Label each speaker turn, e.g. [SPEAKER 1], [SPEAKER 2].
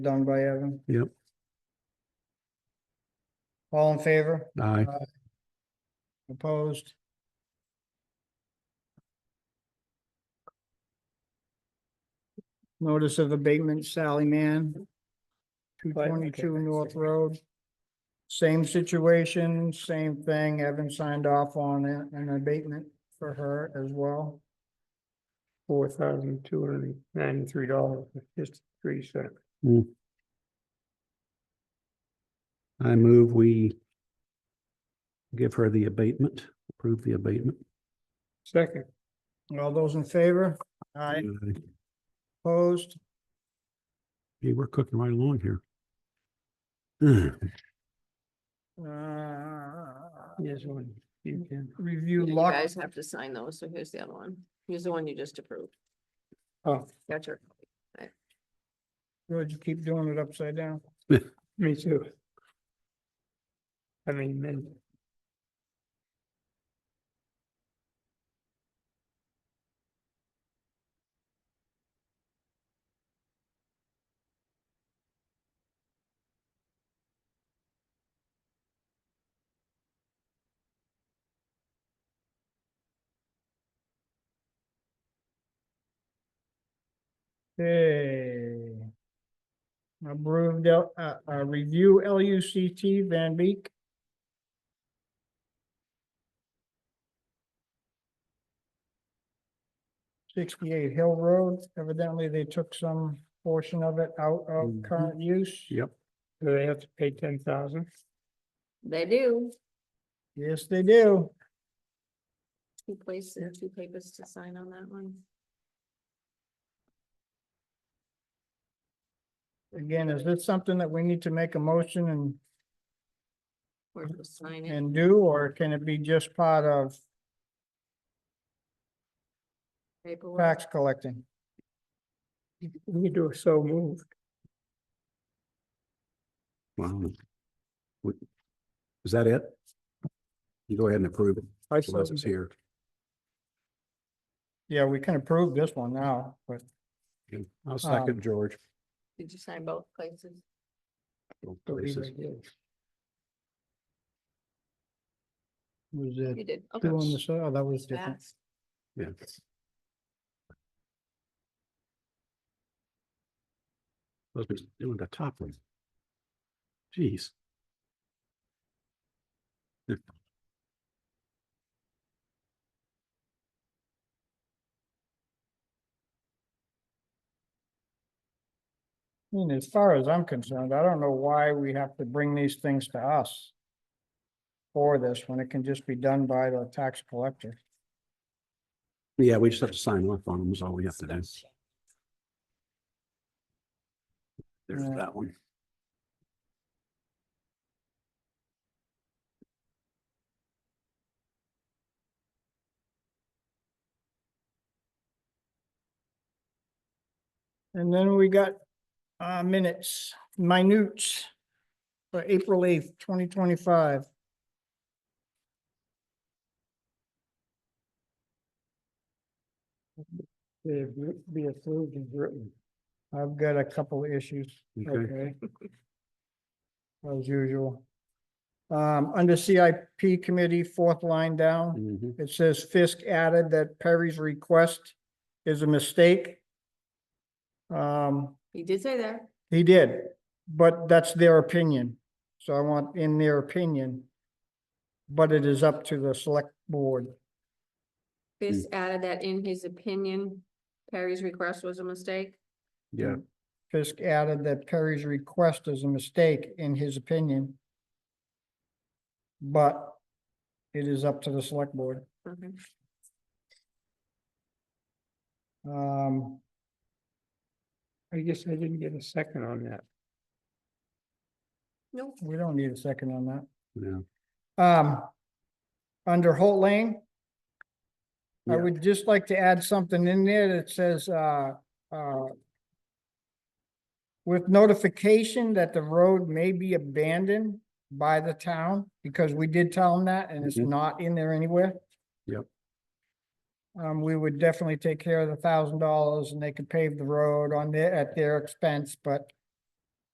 [SPEAKER 1] done by Evan.
[SPEAKER 2] Yep.
[SPEAKER 1] All in favor?
[SPEAKER 2] Aye.
[SPEAKER 1] Opposed? Notice of abatement Sally Mann. Two twenty-two North Road. Same situation, same thing. Haven't signed off on a- an abatement for her as well.
[SPEAKER 3] four thousand two hundred and ninety-three dollars, just three cents.
[SPEAKER 2] I move we give her the abatement, approve the abatement.
[SPEAKER 3] Second,
[SPEAKER 1] All those in favor? Aye.
[SPEAKER 2] Uh,
[SPEAKER 1] Opposed?
[SPEAKER 2] Gee, we're cooking right along here. Uh,
[SPEAKER 1] Uh,
[SPEAKER 3] this one, you can,
[SPEAKER 1] Review
[SPEAKER 4] You
[SPEAKER 1] lot.
[SPEAKER 4] guys have to sign those, so here's the other one. Here's the one you just approved.
[SPEAKER 3] oh,
[SPEAKER 4] Got your, copy.
[SPEAKER 1] George, you keep doing it upside down.
[SPEAKER 3] me too. I mean, then,
[SPEAKER 1] Okay. Approved, L- uh, uh, review L U C T Van Beek. Sixty-eight Hill Road, evidently they took some portion of it out of
[SPEAKER 2] Mhm.
[SPEAKER 1] current use.
[SPEAKER 2] Yep,
[SPEAKER 3] do they have to pay ten thousand?
[SPEAKER 4] they do,
[SPEAKER 1] Yes, they do.
[SPEAKER 4] two places, two papers to sign on that one.
[SPEAKER 1] Again, is this something that we need to make a motion and,
[SPEAKER 4] Or just sign it.
[SPEAKER 1] and do, or can it be just part of
[SPEAKER 4] paperwork.
[SPEAKER 1] tax collecting?
[SPEAKER 3] We do a so moved,
[SPEAKER 2] wow. Wait, Is that it? You go ahead and approve it,
[SPEAKER 3] I
[SPEAKER 2] unless it's
[SPEAKER 3] said,
[SPEAKER 2] here.
[SPEAKER 1] Yeah, we can approve this one now, but
[SPEAKER 2] Okay, I'll second George.
[SPEAKER 4] Did you sign both places?
[SPEAKER 2] Both
[SPEAKER 3] believe I
[SPEAKER 2] places.
[SPEAKER 3] did.
[SPEAKER 1] was
[SPEAKER 4] You
[SPEAKER 1] it
[SPEAKER 4] did, okay.
[SPEAKER 1] two on the side? Oh, that was different.
[SPEAKER 4] Fast.
[SPEAKER 2] Yeah. Supposed to be doing the top one. Jeez.
[SPEAKER 1] I mean, as far as I'm concerned, I don't know why we have to bring these things to us. For this, when it can just be done by the tax collector.
[SPEAKER 2] Yeah, we just have to sign off on them is all we have to do. There's
[SPEAKER 1] Yeah.
[SPEAKER 2] that one.
[SPEAKER 1] And then we got uh minutes, minutes. For April eighth, twenty twenty-five.
[SPEAKER 3] They'd be approved and written,
[SPEAKER 1] I've got a couple of issues.
[SPEAKER 2] Okay,
[SPEAKER 1] Okay. As usual. Um, under CIP committee, fourth line down.
[SPEAKER 2] Mhm.
[SPEAKER 1] It says Fisk added that Perry's request is a mistake. Um,
[SPEAKER 4] He did say that.
[SPEAKER 1] he did, but that's their opinion. So I want in their opinion. But it is up to the select board.
[SPEAKER 4] This
[SPEAKER 1] Mm.
[SPEAKER 4] added that in his opinion, Perry's request was a mistake.
[SPEAKER 2] yeah,
[SPEAKER 1] Fisk added that Perry's request is a mistake in his opinion. But it is up to the select board.
[SPEAKER 4] Okay.
[SPEAKER 1] Um,
[SPEAKER 3] I guess I didn't get a second on that.
[SPEAKER 4] Nope.
[SPEAKER 1] we don't need a second on that.
[SPEAKER 2] yeah.
[SPEAKER 1] Um, under Holt Lane. I
[SPEAKER 2] Yeah.
[SPEAKER 1] would just like to add something in there that says, uh, uh. With notification that the road may be abandoned by the town, because we did tell them that and it's
[SPEAKER 2] Mhm.
[SPEAKER 1] not in there anywhere.
[SPEAKER 2] Yep.
[SPEAKER 1] Um, we would definitely take care of the thousand dollars and they could pave the road on their, at their expense, but